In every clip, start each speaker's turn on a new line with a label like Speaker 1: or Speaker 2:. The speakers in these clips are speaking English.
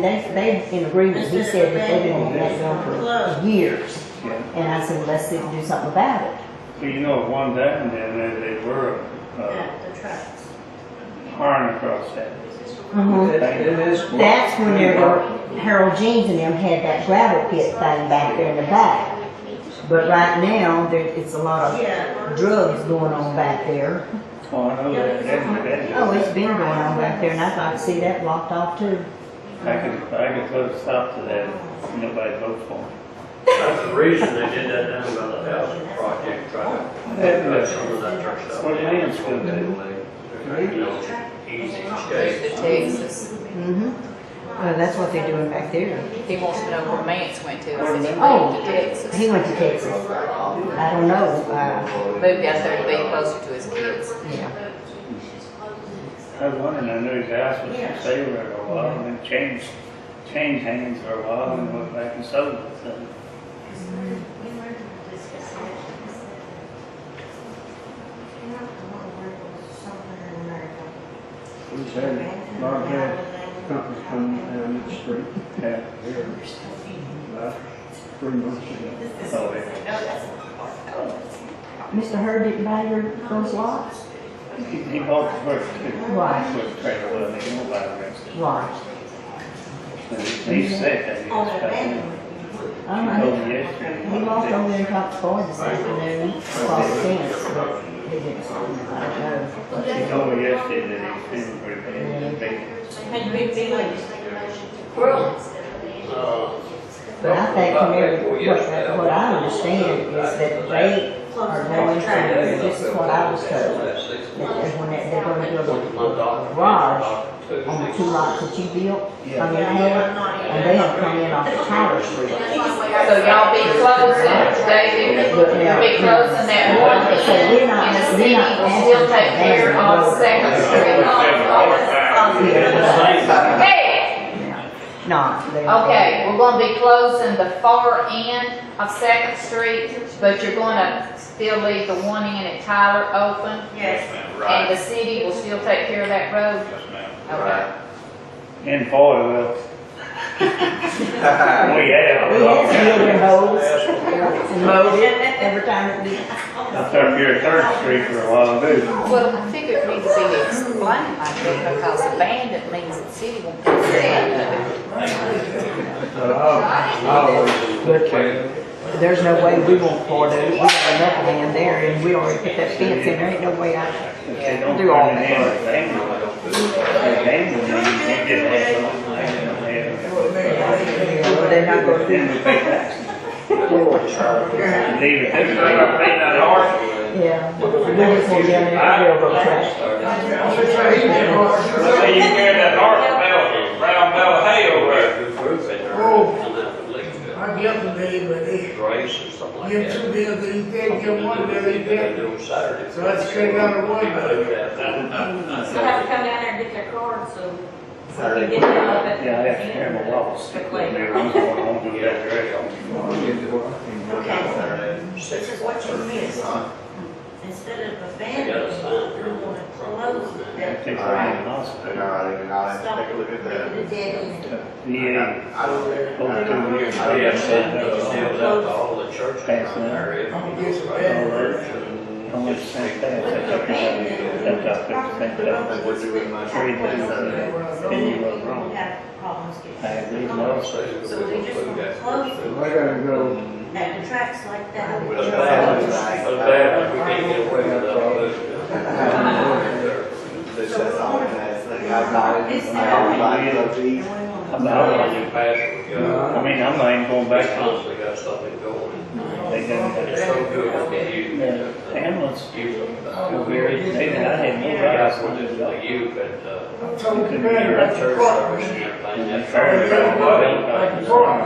Speaker 1: and they, they in agreement, he said that they've been on that
Speaker 2: Club.
Speaker 1: deal for years.
Speaker 3: Yeah.
Speaker 1: And I said, let's see, do something about it.
Speaker 3: Well, you know, one down there, they, they were, uh,
Speaker 2: Yeah, the trucks.
Speaker 3: hiring across that.
Speaker 4: Mm-hmm.
Speaker 1: Mhm. That's when there were, Harold Jeans and them had that gravel pit thing back there in the back. But right now, there, it's a lot
Speaker 2: Yeah.
Speaker 1: of drugs going on back there.
Speaker 3: Oh, I know that, that, that.
Speaker 1: Oh, it's been going on back there and I'd like to see that blocked off too.
Speaker 3: I could, I could put a stop to that, if nobody votes for me.
Speaker 5: That's the reason they did that down by the house project, trying to cut
Speaker 3: uh,
Speaker 5: some of that church stuff.
Speaker 3: What do you mean it's good?
Speaker 5: You know, easy escape.
Speaker 4: Texas.
Speaker 1: Mm-hmm. Well, that's what they're doing back there.
Speaker 4: He wants to know where Mance went to. I said he
Speaker 1: Oh.
Speaker 4: moved to Texas.
Speaker 1: He went to Texas. I don't know, uh,
Speaker 4: Moved out there to be closer to his kids.
Speaker 1: yeah.
Speaker 3: I was wondering, I knew his house was for sale there a while, and then changed, changed hands for a while, and went back and sold it, so.
Speaker 6: We've had a lot of bad companies come down the street
Speaker 3: Yeah,
Speaker 6: here about three months ago.
Speaker 3: so, yeah.
Speaker 1: Mr. Hurd didn't buy your, those lots?
Speaker 3: He, he bought the first two.
Speaker 1: Right.
Speaker 3: With trailer, well, he won't buy the rest.
Speaker 1: Right.
Speaker 3: He said that he
Speaker 2: On
Speaker 3: was
Speaker 2: the
Speaker 3: coming.
Speaker 2: back.
Speaker 1: I
Speaker 3: He told
Speaker 1: know.
Speaker 3: me yesterday.
Speaker 1: Oh, He walked over there and talked to Floyd this afternoon, across the fence, but he didn't, I don't know. but
Speaker 3: He
Speaker 1: he-
Speaker 3: told me yesterday that he's feeling pretty bad, bad.
Speaker 2: Had you been feeling
Speaker 1: But I think from every, what, what I understand is that they are going to, this is what I was told, that when they- they're gonna build a garage on the two lots that you built, on your head, and they'll come in off of Tyler Street.
Speaker 4: So y'all be closing, David, be closing that one end, and the city will still take care of Second Street. Hey,
Speaker 1: No, they.
Speaker 4: okay, we're gonna be closing the far end of Second Street, but you're gonna still leave the one end at Tyler open,
Speaker 2: Yes.
Speaker 4: and the city will still take care of that road? Okay.
Speaker 3: And Paul, well, we
Speaker 1: We
Speaker 3: have.
Speaker 1: had to build in holes, and mowed it every time we,
Speaker 3: I took your third street for a while too.
Speaker 4: Well, I figured it needs to be explained like that, because abandoned means the city won't consent.
Speaker 6: But I, I always look at it,
Speaker 1: there's no way we won't pour it, we have enough land there, and we already put that fence in, there ain't no way I.
Speaker 3: If they don't
Speaker 1: Do all
Speaker 3: turn it in,
Speaker 1: that.
Speaker 3: it's dangerous. It's dangerous, you can't get that.
Speaker 1: They're not gonna do.
Speaker 3: Then we pay taxes. Leave it, this way, we pay that hard.
Speaker 1: Yeah. We're just gonna get in there, we'll go trash.
Speaker 7: Let's say you carry that north bell, round bell hay over there.
Speaker 8: I get the day, but they
Speaker 5: Grace or something like
Speaker 8: give two
Speaker 5: that.
Speaker 8: bills, they take, give one bill, they take.
Speaker 5: Do it Saturday.
Speaker 8: So that's straight out of one
Speaker 5: bill.
Speaker 9: So I have to come down there and get their card, so. so they
Speaker 3: Saturday.
Speaker 9: can get them up at-
Speaker 3: Yeah, I have to carry my walls. I'm
Speaker 9: Quickly.
Speaker 3: going home to that direction.
Speaker 6: I'll get to work and work
Speaker 2: Okay.
Speaker 6: out.
Speaker 2: This is what you missed. Instead of abandoned, we want to close that.
Speaker 3: Take her in the hospital.
Speaker 2: Stop it. The dead end.
Speaker 3: VA,
Speaker 7: I don't care.
Speaker 3: over two years.
Speaker 5: I
Speaker 3: they
Speaker 5: have
Speaker 3: said
Speaker 5: sent
Speaker 3: that
Speaker 5: those
Speaker 3: was
Speaker 5: deals
Speaker 3: all-
Speaker 5: out to all the churches
Speaker 3: Thanks,
Speaker 5: down there. If you
Speaker 8: Yes,
Speaker 5: go
Speaker 8: man.
Speaker 5: to church and-
Speaker 3: How much sense that, that took everybody, that took everything, that was three days, uh, and you were
Speaker 2: We
Speaker 3: wrong.
Speaker 2: have problems getting.
Speaker 3: I agree, no, so.
Speaker 2: So we just want to close
Speaker 6: I gotta go,
Speaker 2: at the tracks like
Speaker 5: But
Speaker 2: that.
Speaker 5: bad, but bad, we can't get away with that.
Speaker 6: I have to work.
Speaker 2: And we want to-
Speaker 3: I'm
Speaker 5: Now,
Speaker 3: not,
Speaker 5: when you pass, we got,
Speaker 3: I mean, I'm not even going
Speaker 5: they
Speaker 3: back to,
Speaker 5: constantly got something going.
Speaker 3: they done that.
Speaker 5: It's so good with you.
Speaker 3: The ambulance,
Speaker 5: You,
Speaker 3: who buried, they, I had no
Speaker 5: yeah,
Speaker 3: rights
Speaker 5: I
Speaker 3: to do
Speaker 5: just
Speaker 3: that.
Speaker 5: like you, but, uh,
Speaker 8: I'm so
Speaker 3: Couldn't
Speaker 8: glad
Speaker 3: hear
Speaker 5: your
Speaker 8: that's
Speaker 5: church
Speaker 8: what
Speaker 5: service and
Speaker 8: we need.
Speaker 5: everything,
Speaker 3: And
Speaker 5: that's.
Speaker 3: fair enough.
Speaker 5: Well,
Speaker 8: Well,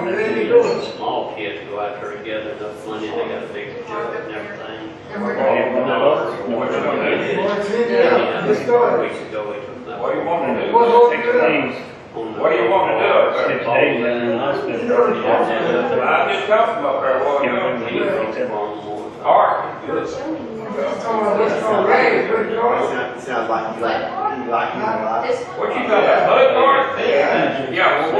Speaker 8: you really do it.
Speaker 5: Small kids go out there and gather enough money, they got a big job and everything.
Speaker 3: I had no rights, no rights.
Speaker 8: Well, it's
Speaker 5: Yeah,
Speaker 8: in there,
Speaker 5: we
Speaker 8: it's started.
Speaker 5: could go into that.
Speaker 7: What do you want to do?
Speaker 8: Well,
Speaker 3: Six
Speaker 8: look,
Speaker 3: days,
Speaker 5: On the-
Speaker 7: What do you want to do up
Speaker 3: six
Speaker 7: there?
Speaker 3: days in the hospital.
Speaker 7: I just come from up there, what
Speaker 3: Can't
Speaker 7: you
Speaker 3: remember
Speaker 7: do?
Speaker 3: the date.
Speaker 7: Hard, good.
Speaker 8: it's all, it's all right, but it's all-
Speaker 5: Sounds like you like, you like, you
Speaker 7: What you got, a hood, Lord? Yeah, well,